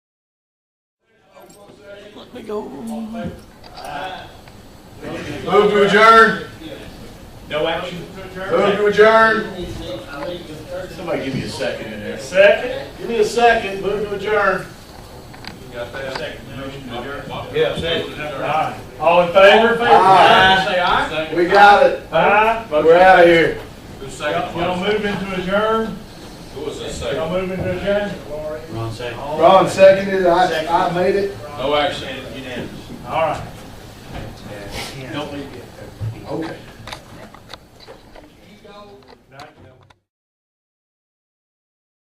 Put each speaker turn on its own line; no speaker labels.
We go.
Move to adjourn.
No action.
Move to adjourn.
Somebody give me a second in there.
Second?
Give me a second, move to adjourn.
Got that second. Motion to adjourn.
Yeah, second.
Aye. All in favor?
Aye.
Say aye.
We got it.
Aye.
We're out of here.
Who's
Y'all y'all
second?
moving to adjourn?
Who was the
Y'all
second?
moving to adjourn?
Ron second.
Ron seconded, I, I made it.
No action. Unanimous.
All right.
Okay.